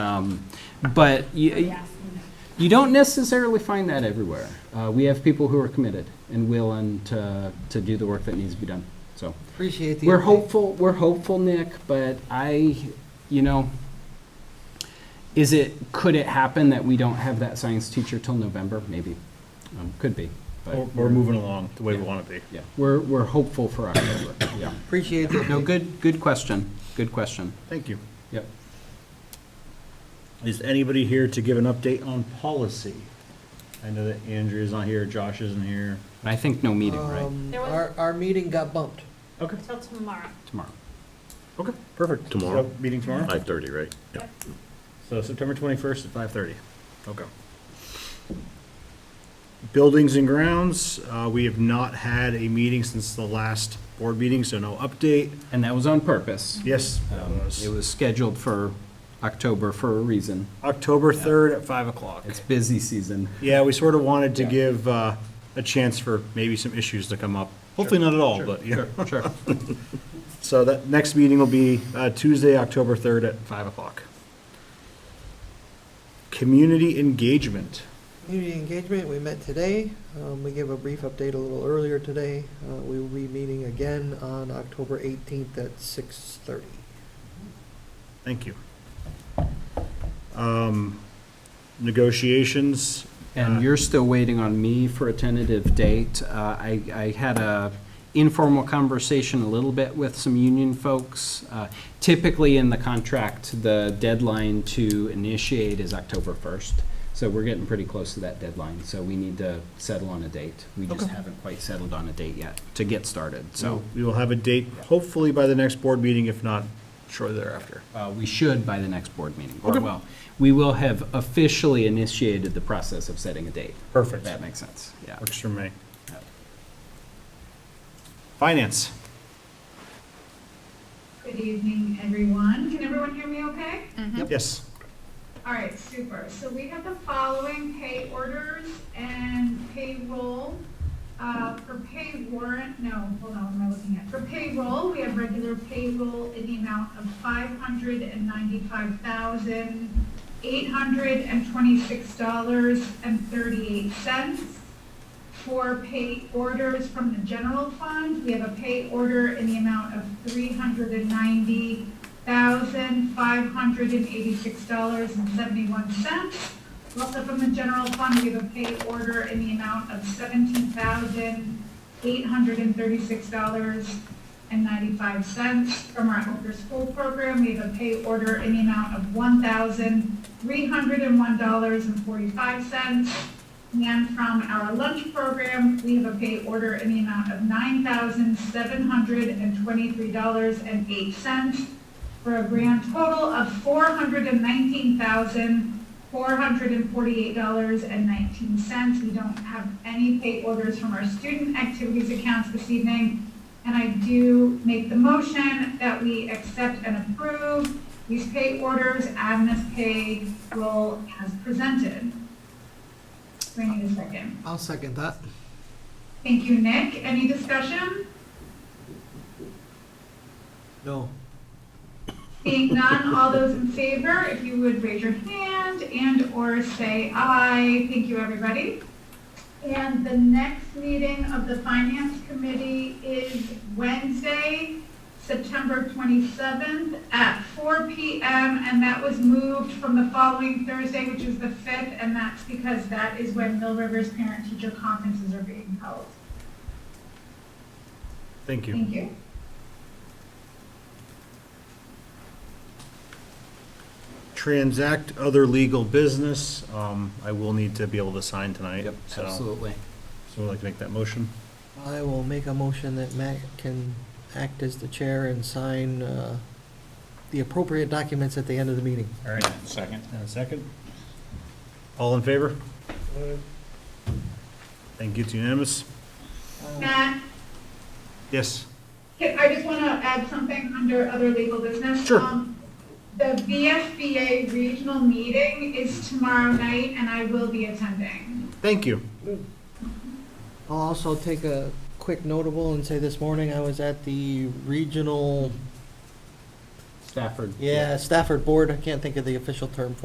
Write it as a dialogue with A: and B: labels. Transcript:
A: Um, But you, you don't necessarily find that everywhere. Uh, We have people who are committed and willing to, to do the work that needs to be done, so.
B: Appreciate the.
A: We're
B: update.
A: hopeful, we're hopeful, Nick, but I, you know, is it, could it happen that we don't have that science teacher till November? Maybe. Um, Could be, but
C: We're, we're moving along the way we want to be.
A: yeah, we're, we're hopeful for October, yeah.
B: Appreciate the.
A: No,
B: update.
A: good, good question, good question.
C: Thank you.
A: Yep.
C: Is anybody here to give an update on policy? I know that Andrea's not here, Josh isn't here.
A: I think no meeting, right?
B: Um,
D: There was-
B: Our, our meeting got bumped.
C: Okay,
D: Till tomorrow.
A: Tomorrow.
C: okay.
E: Perfect. Tomorrow,
C: So, meeting tomorrow?
E: five thirty, right? Yeah.
C: So September twenty-first at five thirty. Okay. Buildings and grounds, uh, we have not had a meeting since the last board meeting, so no update.
A: And that was on purpose.
C: Yes,
A: Um,
C: uh,
A: It was scheduled for October for a reason.
C: October third at five o'clock.
A: It's busy season.
C: Yeah, we sort of wanted to
A: Yeah.
C: give uh, a chance for maybe some issues to come up. Hopefully not at all, but yeah.
A: Sure.
C: So that next meeting will be uh, Tuesday, October 3rd at 5 o'clock. Community engagement.
B: Community engagement, we met today. Um, we gave a brief update a little earlier today. Uh, we will be meeting again on October eighteenth at six thirty.
C: Thank you. Um, Negotiations.
A: And you're still waiting on me for a tentative date. Uh, I, I had a informal conversation a little bit with some union folks. Uh, Typically in the contract, the deadline to initiate is October 1st. So we're getting pretty close to that deadline, so we need to settle on a date. We just haven't quite settled on a date yet to get started, so.
C: We will have a date hopefully by the next board meeting, if not shortly thereafter.
A: Uh, We should by the next board meeting, or well, we will have officially initiated the process of setting a date. If
C: Perfect.
A: that makes sense, yeah.
C: Works for me. Finance.
F: Good evening, everyone. Can everyone hear me okay?
C: Yes.
F: All right, super. So we have the following pay orders and payroll. Uh, For pay warrant, no, hold on, what am I looking at? For payroll, we have regular payroll in the amount of $595,826.38. For pay orders from the general fund, we have a pay order in the amount of three hundred and ninety thousand, five hundred and eighty-six dollars and seventy-one cents. Also from the general fund, we have a pay order in the amount of seventeen thousand, eight hundred and thirty-six dollars and ninety-five cents. From our Hooker School Program, we have a pay order in the amount of one thousand, three hundred and one dollars and forty-five cents. And from our lunch program, we have a pay order in the amount of nine thousand seven hundred and twenty-three dollars and eight cents for a grand total of four hundred and nineteen thousand four hundred and forty-eight dollars and nineteen cents. We don't have any pay orders from our student activities accounts this evening. And I do make the motion that we accept and approve these pay orders, Agnes pay roll as presented. Do I need a second?
B: I'll second that.
F: Thank you, Nick. Any discussion?
B: No.
F: Seeing none, all those in favor, if you would raise your hand and/or say aye. Thank you, everybody. And the next meeting of the Finance Committee is Wednesday, September 27th at 4 PM. And that was moved from the following Thursday, which is the 5th, and that's because that is when Mill River's parent-teacher conferences are being held.
C: Thank you.
F: Thank you.
C: Transact other legal business. Um, I will need to be able to sign tonight.
A: Yep,
C: so-
A: absolutely.
C: So I'd like to make that motion.
B: I will make a motion that Matt can act as the chair and sign, uh, the appropriate documents at the end of the meeting.
C: All right. Second. And a second. All in favor? Thank you, it's unanimous.
F: Matt?
C: Yes,
F: Okay, I just want to add something under other legal business.
C: Sure.
F: Um, The VFBA regional meeting is tomorrow night, and I will be attending.
C: thank you.
B: I'll also take a quick notable and say this morning I was at the regional
A: Stafford.
B: Yeah, Stafford Board, I can't think of the official term for